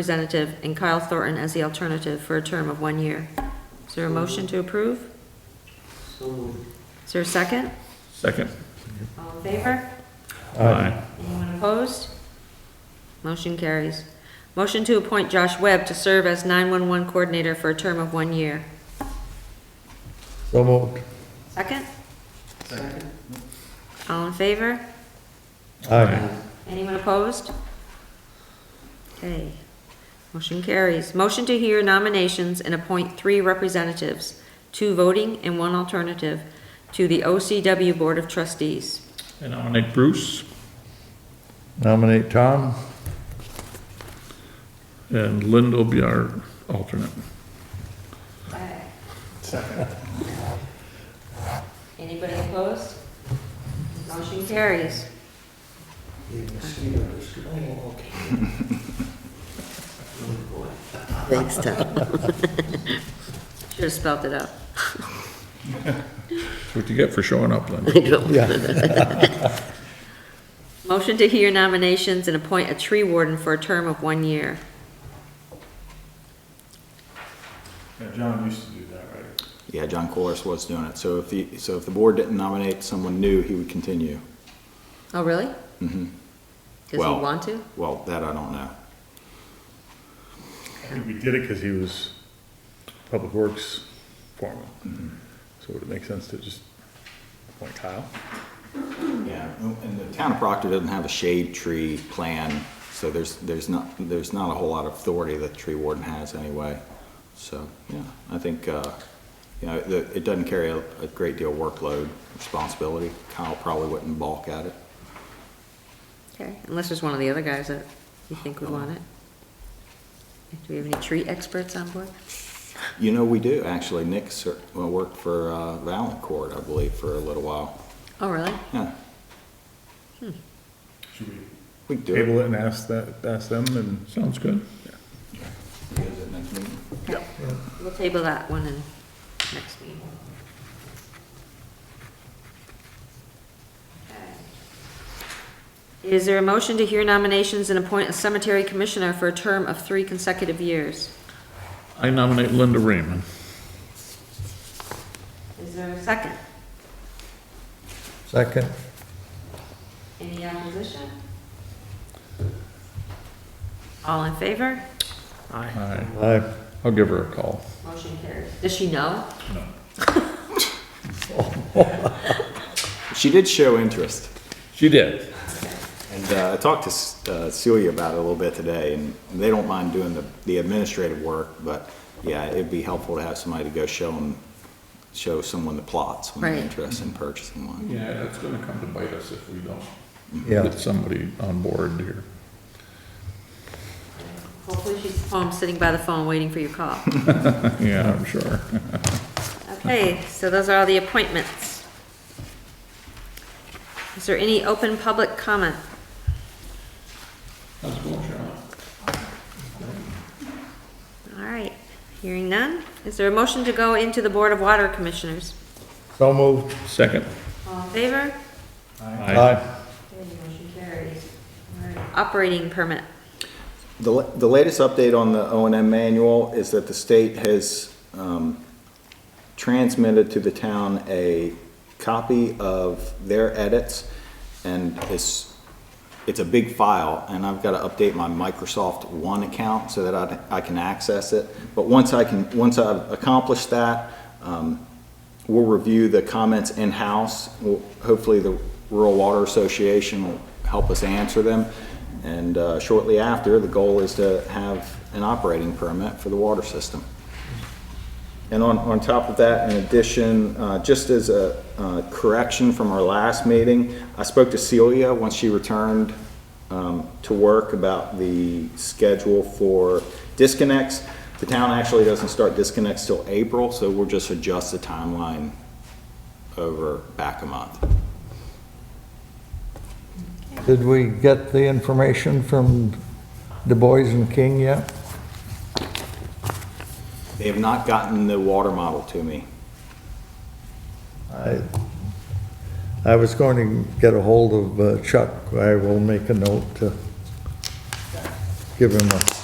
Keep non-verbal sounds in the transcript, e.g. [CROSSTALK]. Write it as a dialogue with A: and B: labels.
A: representative and Kyle Thornton as the alternative for a term of one year. Is there a motion to approve?
B: So moved.
A: Is there a second?
C: Second.
A: All in favor?
C: Aye.
A: Anyone opposed? Motion carries. Motion to appoint Josh Webb to serve as 911 coordinator for a term of one year.
D: So moved.
A: Second?
B: Second.
A: All in favor?
D: Aye.
A: Anyone opposed? Okay, motion carries. Motion to hear nominations and appoint three representatives, two voting and one alternative, to the OCW Board of Trustees.
C: And nominate Bruce
D: Nominate Tom.
C: and Linda will be our alternate.
A: Anybody opposed? Motion carries.
B: Even sweeter. Oh, okay. Good boy.
A: Thanks, Tom. [LAUGHS] Should have spelt it out.
C: That's what you get for showing up, Linda.
A: Motion to hear nominations and appoint a tree warden for a term of one year.
E: Yeah, John used to do that, right?
F: Yeah, John Corliss was doing it. So if the, so if the board didn't nominate someone new, he would continue.
A: Oh, really? Does he
F: Well-
A: want to?
F: Well, that I don't know.
E: I think [LAUGHS] we did it because he was Public Works foreman.
C: Mm-hmm.
E: So would it make sense to just appoint Kyle?
F: Yeah, and the town of Proctor doesn't have a shade tree plan, so there's, there's not, there's not a whole lot of authority that the tree warden has anyway. So, yeah, I think, uh, you know, the- it doesn't carry a a great deal of workload, responsibility. Kyle probably wouldn't balk at it.
A: Okay, unless there's one of the other guys that you think would want it. Do we have any tree experts on board?
F: You know, we do, actually. Nick ser- well, worked for uh, Valancourt, I believe, for a little while.
A: Oh, really?
F: Yeah,
E: Should we
F: we can do it.
E: table it and ask that, ask them and?
C: Sounds good.
F: You guys at next meeting?
A: Yeah. We'll table that one in next meeting. Is there a motion to hear nominations and appoint a cemetery commissioner for a term of three consecutive years?
C: I nominate Linda Raymond.
A: Is there a second?
D: Second.
A: Any opposition? All in favor?
C: Aye.
D: Aye.
C: I'll give her a call.
A: Motion carries. Does she know?
F: She did show interest.
C: She did.
F: And uh, I talked to uh, Celia about it a little bit today, and they don't mind doing the, the administrative work, but yeah, it'd be helpful to have somebody to go show them, show someone the plots when
A: Right.
F: they're interested in purchasing one.
C: Yeah, it's gonna come to bite us if we don't
D: Yeah.
C: get somebody on board here. [LAUGHS]
A: Hopefully she's home, sitting by the phone, waiting for your call.
C: Yeah, I'm sure.
A: Okay, so those are all the appointments. Is there any open public comment?
C: That's cool, Charlotte.
A: All right, hearing none. Is there a motion to go into the Board of Water Commissioners?
D: So moved.
C: Second.
A: All in favor?
D: Aye.
A: Motion carries. Operating permit.
F: The, la- the latest update on the O and M manual is that the state has um, transmitted to the town a copy of their edits, and it's, it's a big file, and I've got to update my Microsoft One account so that I, I can access it. But once I can, once I've accomplished that, um, we'll review the comments in-house. We'll- Hopefully, the Rural Water Association will help us answer them. And uh, shortly after, the goal is to have an operating permit for the water system. And on, on top of that, in addition, uh, just as a uh, correction from our last meeting, I spoke to Celia once she returned um, to work about the schedule for disconnects. The town actually doesn't start disconnects till April, so we'll just adjust the timeline over back a month.
D: Did we get the information from Du Bois and King yet?
F: They have not gotten the water model to me.
D: I, I was going to get a hold of uh, Chuck. I will make a note to give him a